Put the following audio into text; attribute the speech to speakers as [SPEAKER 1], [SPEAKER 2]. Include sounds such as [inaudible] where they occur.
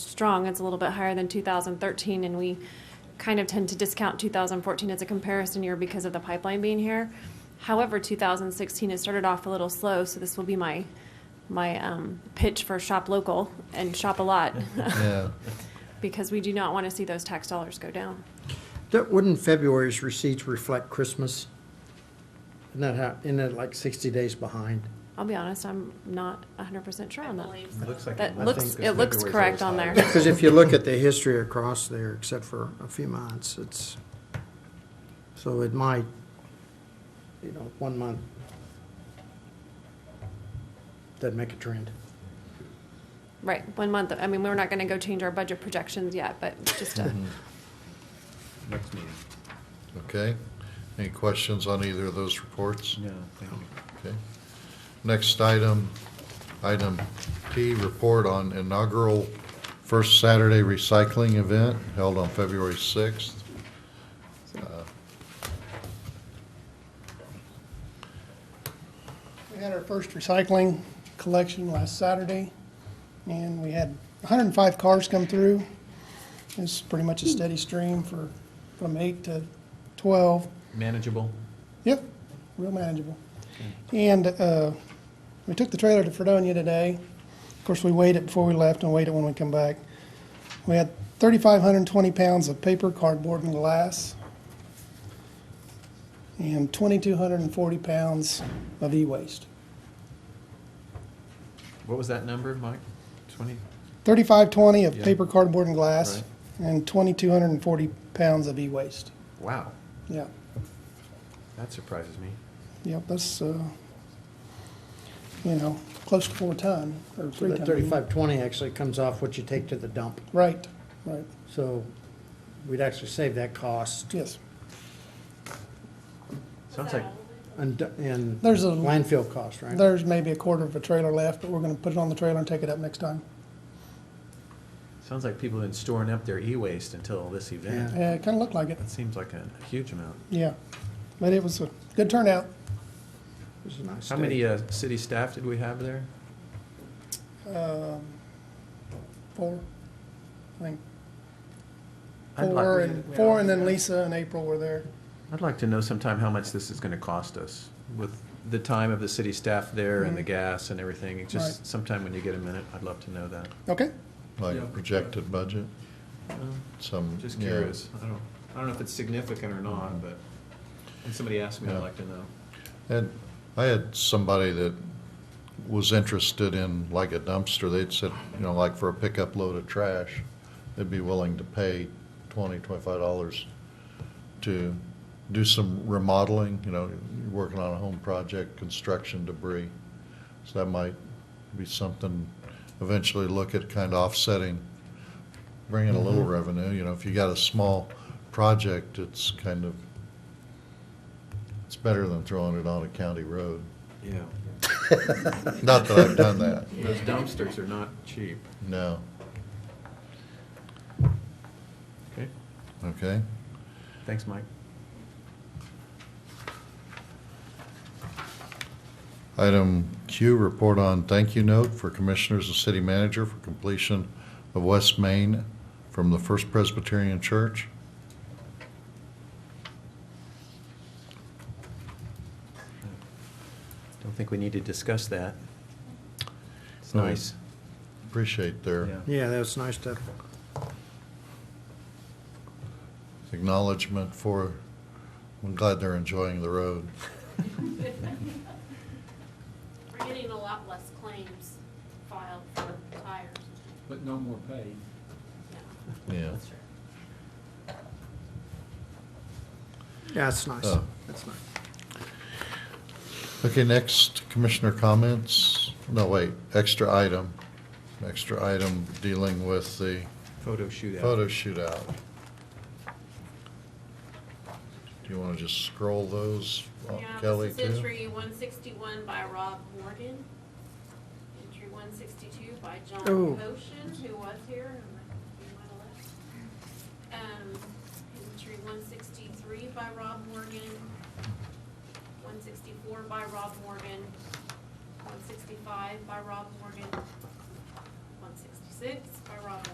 [SPEAKER 1] strong. It's a little bit higher than 2013, and we kind of tend to discount 2014 as a comparison year because of the pipeline being here. However, 2016 has started off a little slow, so this will be my my um, pitch for shop local and shop a lot
[SPEAKER 2] Yeah.
[SPEAKER 1] because we do not want to see those tax dollars go down.
[SPEAKER 3] That- Wouldn't February's receipts reflect Christmas? Isn't that how, isn't that like 60 days behind?
[SPEAKER 1] I'll be honest, I'm not 100% sure on that.
[SPEAKER 4] Looks like
[SPEAKER 1] That
[SPEAKER 4] it.
[SPEAKER 1] looks it looks correct on there.
[SPEAKER 3] Because if you look at the history across there, except for a few months, it's, so it might, you know, one month, doesn't make a trend.
[SPEAKER 1] Right, one month. I mean, we're not going to go change our budget projections yet, but just
[SPEAKER 2] [laughs]
[SPEAKER 1] to,
[SPEAKER 4] Next meeting.
[SPEAKER 2] [laughs] Okay. Any questions on either of those reports?
[SPEAKER 4] No, thank you.
[SPEAKER 2] Okay. Next item, item P, report on inaugural First Saturday Recycling Event held on February 6th.
[SPEAKER 5] We had our first recycling collection last Saturday, and we had 105 cars come through. It's pretty much a steady stream for, from 8 to 12.
[SPEAKER 4] Manageable.
[SPEAKER 5] Yep, real manageable. And uh, we took the trailer to Fredonia today. Of course, we weighed it before we left and weighed it when we come back. We had 3,520 pounds of paper, cardboard, and glass, and 2,240 pounds of e-waste.
[SPEAKER 4] What was that number, Mike? Twenty?
[SPEAKER 5] Thirty-five twenty of
[SPEAKER 4] Yeah.
[SPEAKER 5] paper, cardboard, and glass,
[SPEAKER 4] Right.
[SPEAKER 5] and twenty-two hundred and forty pounds of e-waste.
[SPEAKER 4] Wow,
[SPEAKER 5] Yeah,
[SPEAKER 4] that surprises me.
[SPEAKER 5] yep, that's, uh, you know, close to four ton, or
[SPEAKER 3] So
[SPEAKER 5] three
[SPEAKER 3] that
[SPEAKER 5] ton.
[SPEAKER 3] 3520 actually comes off what you take to the dump.
[SPEAKER 5] Right, right,
[SPEAKER 3] So we'd actually save that cost
[SPEAKER 5] yes.
[SPEAKER 4] Sounds like,
[SPEAKER 3] and and
[SPEAKER 5] There's a-
[SPEAKER 3] landfill cost, right?
[SPEAKER 5] There's maybe a quarter of a trailer left, but we're gonna put it on the trailer and take it up next time.
[SPEAKER 4] sounds like people have been storing up their e-waste until this event.
[SPEAKER 5] Yeah, it kinda looked like it,
[SPEAKER 4] That seems like a a huge amount.
[SPEAKER 5] yeah. But it was a good turnout.
[SPEAKER 3] It was a nice
[SPEAKER 4] How
[SPEAKER 3] day.
[SPEAKER 4] many uh, city staff did we have there?
[SPEAKER 5] Um, Four, I think,
[SPEAKER 4] I'd like-
[SPEAKER 5] four and, four and then Lisa and April were there.
[SPEAKER 4] I'd like to know sometime how much this is gonna cost us with the time of the city staff there
[SPEAKER 1] Mm-hmm.
[SPEAKER 4] and the gas and everything. It's Just
[SPEAKER 5] Right.
[SPEAKER 4] sometime when you get a minute, I'd love to know that.
[SPEAKER 5] Okay,
[SPEAKER 2] Like
[SPEAKER 4] Yeah.
[SPEAKER 2] projected budget, some.
[SPEAKER 4] Just
[SPEAKER 2] yeah.
[SPEAKER 4] curious. I don't, I don't know if it's significant or not, but when somebody asks me,
[SPEAKER 2] Yeah.
[SPEAKER 4] I'd like to know.
[SPEAKER 2] And I had somebody that was interested in like a dumpster, they'd said, you know, like for a pickup load of trash, they'd be willing to pay twenty, twenty-five dollars to do some remodeling, you know, you're working on a home project, construction debris. So that might be something, eventually look at kind of offsetting, bringing a little revenue, you know, if you got a small project, it's kind of, it's better than throwing it on a county road.
[SPEAKER 4] Yeah.
[SPEAKER 2] Not that I've done that,
[SPEAKER 4] Those dumpsters are not cheap.
[SPEAKER 2] no,
[SPEAKER 4] Okay,
[SPEAKER 2] okay?
[SPEAKER 4] thanks, Mike.
[SPEAKER 2] Item Q, report on thank you note for commissioners and city manager for completion of West Main from the First Presbyterian Church.
[SPEAKER 4] Don't think we need to discuss that. It's
[SPEAKER 2] Oh,
[SPEAKER 4] nice.
[SPEAKER 2] Appreciate their
[SPEAKER 3] Yeah, that was nice to
[SPEAKER 2] acknowledgement for, I'm glad they're enjoying the road.
[SPEAKER 6] We're getting a lot less claims filed for tires.
[SPEAKER 7] But no more pay.
[SPEAKER 6] now.
[SPEAKER 2] Yeah.
[SPEAKER 3] Yeah, that's nice.
[SPEAKER 2] Oh.
[SPEAKER 3] That's nice.
[SPEAKER 2] Okay, next, commissioner comments. No, wait, extra item. Extra item dealing with the
[SPEAKER 4] Photo shootout.
[SPEAKER 2] photo shootout. Do you want to just scroll those, uh,
[SPEAKER 6] Yeah,
[SPEAKER 2] Kelly,
[SPEAKER 6] this
[SPEAKER 2] too?
[SPEAKER 6] is entry one sixty-one by Rob Morgan. Entry one sixty-two by John
[SPEAKER 3] Oh.
[SPEAKER 6] Potion, who was here. and he might have left. Um, Entry one sixty-three by Rob Morgan. One sixty-four by Rob Morgan. One sixty-five by Rob Morgan. One sixty-six by Rob Morgan.